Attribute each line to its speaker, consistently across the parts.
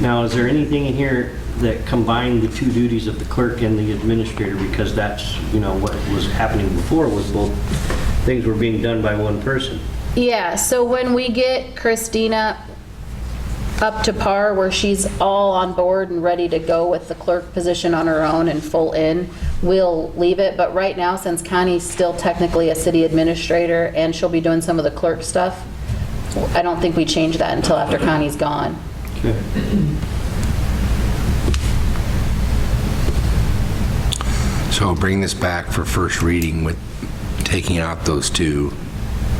Speaker 1: Now, is there anything in here that combined the two duties of the clerk and the administrator? Because that's, you know, what was happening before was both things were being done by one person.
Speaker 2: Yeah, so when we get Christina up to par where she's all on board and ready to go with the clerk position on her own and full in, we'll leave it. But right now, since Connie's still technically a city administrator and she'll be doing some of the clerk stuff, I don't think we change that until after Connie's gone.
Speaker 3: So bring this back for first reading with taking out those two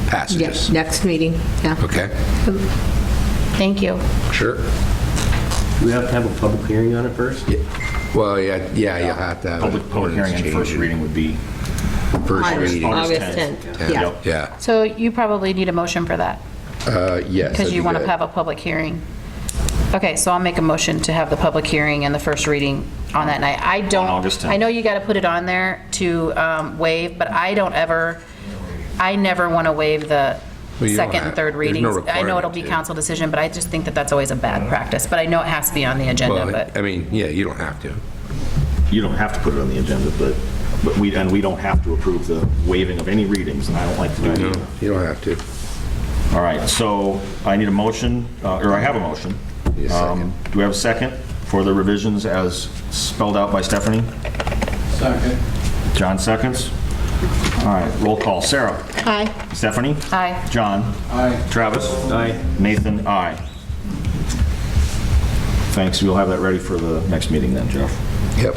Speaker 4: Yes,
Speaker 3: passages.
Speaker 4: next meeting, yeah.
Speaker 3: Okay,
Speaker 2: Thank you.
Speaker 3: sure.
Speaker 1: Do we have to have a public hearing on it first?
Speaker 3: Well, yeah, yeah, you'll have to have. an
Speaker 5: Public, public hearing and
Speaker 3: ordinance
Speaker 5: first
Speaker 3: change.
Speaker 5: reading would be.
Speaker 3: First
Speaker 4: August-
Speaker 3: reading.
Speaker 4: August 10th, yeah.
Speaker 5: Yep.
Speaker 3: Yeah,
Speaker 2: So you probably need a motion for that
Speaker 3: Uh, yes.
Speaker 2: because
Speaker 3: that'd
Speaker 2: you
Speaker 3: be
Speaker 2: want to
Speaker 3: good.
Speaker 2: have a public hearing. Okay, so I'll make a motion to have the public hearing and the first reading on that night. I don't.
Speaker 5: August 10th.
Speaker 2: I know you got to put it on there to um, waive, but I don't ever, I never want to waive the
Speaker 3: Well, you don't
Speaker 2: second and
Speaker 3: have-
Speaker 2: third
Speaker 3: there's no
Speaker 2: readings. I know it'll
Speaker 3: requirement
Speaker 2: be
Speaker 3: to.
Speaker 2: council decision, but I just think that that's always a bad practice. But I know it has to be on the agenda,
Speaker 3: Well,
Speaker 2: but,
Speaker 3: I mean, yeah, you don't have to.
Speaker 5: You don't have to put it on the agenda, but, but we, and we don't have to approve the waiving of any readings, and I don't like to do that either.
Speaker 3: You don't have to.
Speaker 5: All right, so I need a motion, uh, or I have a motion.
Speaker 3: Need a second.
Speaker 5: Um, Do we have a second for the revisions as spelled out by Stephanie? Second. John seconds. All right, roll call. Sarah?
Speaker 4: Hi.
Speaker 5: Stephanie?
Speaker 2: Aye.
Speaker 5: John? Aye. Travis?
Speaker 1: Aye.
Speaker 5: Nathan? Aye. Thanks, we'll have that ready for the next meeting then, Jeff.
Speaker 3: Yep.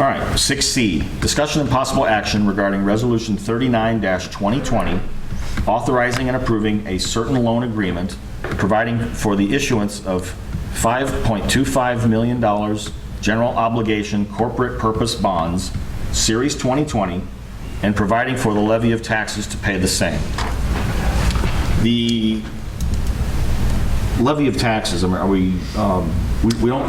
Speaker 5: All right, 6C, discussion and possible action regarding Resolution 39-2020, authorizing and approving a certain loan agreement providing for the issuance of $5.25 million general obligation corporate purpose bonds, Series 2020, and providing for the levy of taxes to pay the same. The levy of taxes, I mean, are we, um, we- we don't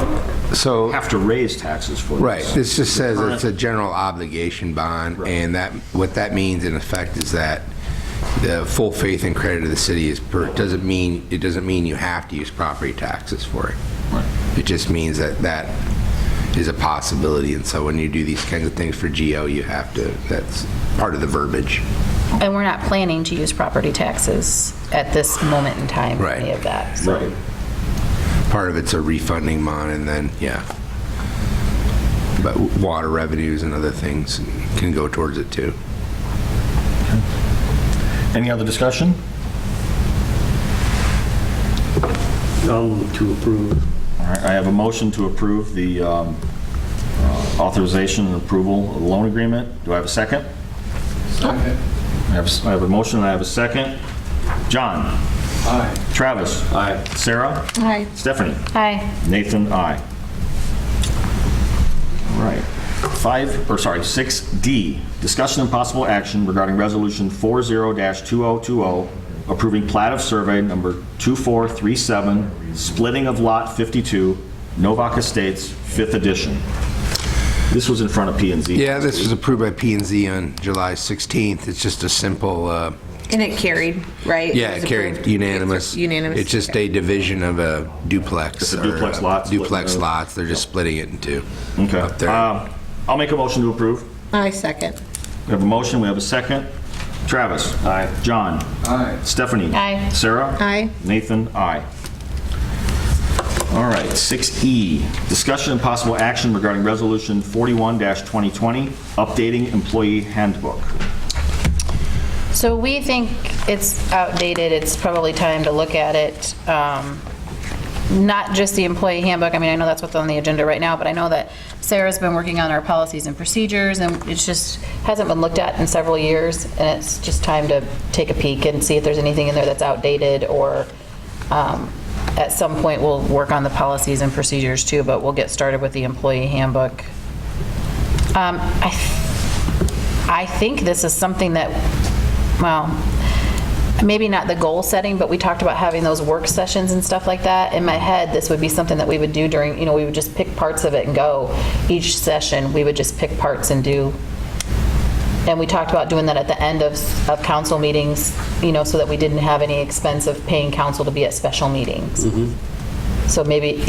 Speaker 3: So-
Speaker 5: have to raise taxes for this.
Speaker 3: Right, this just says it's a general obligation bond, and that, what that means in effect is that the full faith and credit of the city is, per- doesn't mean, it doesn't mean you have to use property taxes for it. It just means that that is a possibility, and so when you do these kinds of things for GO, you have to, that's part of the verbiage.
Speaker 2: and we're not planning to use property taxes at this moment in time,
Speaker 3: Right.
Speaker 2: any of that. so.
Speaker 5: Right.
Speaker 3: Part of it's a refunding bond, and then, yeah. But water revenues and other things can go towards it, too.
Speaker 5: Any other discussion?
Speaker 1: Um, to approve.
Speaker 5: All right, I have a motion to approve the um, uh, authorization and approval of the loan agreement. Do I have a second? Second. I have, s- I have a motion, and I have a second. John? Aye. Travis? Aye. Sarah?
Speaker 4: Hi.
Speaker 5: Stephanie?
Speaker 2: Aye.
Speaker 5: Nathan, aye. All right. Five, or sorry, 6D, discussion and possible action regarding Resolution 40-2020, approving plat of survey number 2437, splitting of Lot 52, Novak Estates, 5th Edition. This was in front of p and Z.
Speaker 3: Yeah, this was approved by p and Z on July 16th. It's just a simple, uh,
Speaker 4: And it carried, right?
Speaker 3: yeah,
Speaker 4: was
Speaker 3: it carried
Speaker 4: approved.
Speaker 3: unanimous.
Speaker 4: Unanimous.
Speaker 3: It's just a division of a duplex.
Speaker 5: It's a
Speaker 3: or,
Speaker 5: duplex
Speaker 3: uh,
Speaker 5: lot split
Speaker 3: Duplex
Speaker 5: into-
Speaker 3: lots, they're just splitting it in two.
Speaker 5: Okay.
Speaker 3: Up there.
Speaker 5: Um, I'll make a motion to approve.
Speaker 4: I second.
Speaker 5: We have a motion, we have a second. Travis? Aye. John? Aye. Stephanie?
Speaker 2: Aye.
Speaker 5: Sarah?
Speaker 4: Aye.
Speaker 5: Nathan? Aye. All right, 6E, discussion and possible action regarding Resolution 41-2020, updating employee handbook.
Speaker 2: So we think it's outdated, it's probably time to look at it, um, not just the employee handbook, I mean, I know that's what's on the agenda right now, but I know that Sarah's been working on our policies and procedures, and it's just, hasn't been looked at in several years, and it's just time to take a peek and see if there's anything in there that's outdated, or um, at some point, we'll work on the policies and procedures too, but we'll get started with the employee handbook. Um, I I think this is something that, well, maybe not the goal setting, but we talked about having those work sessions and stuff like that. In my head, this would be something that we would do during, you know, we would just pick parts of it and go. Each session, we would just pick parts and do. And we talked about doing that at the end of, of council meetings, you know, so that we didn't have any expense of paying council to be at special meetings. So maybe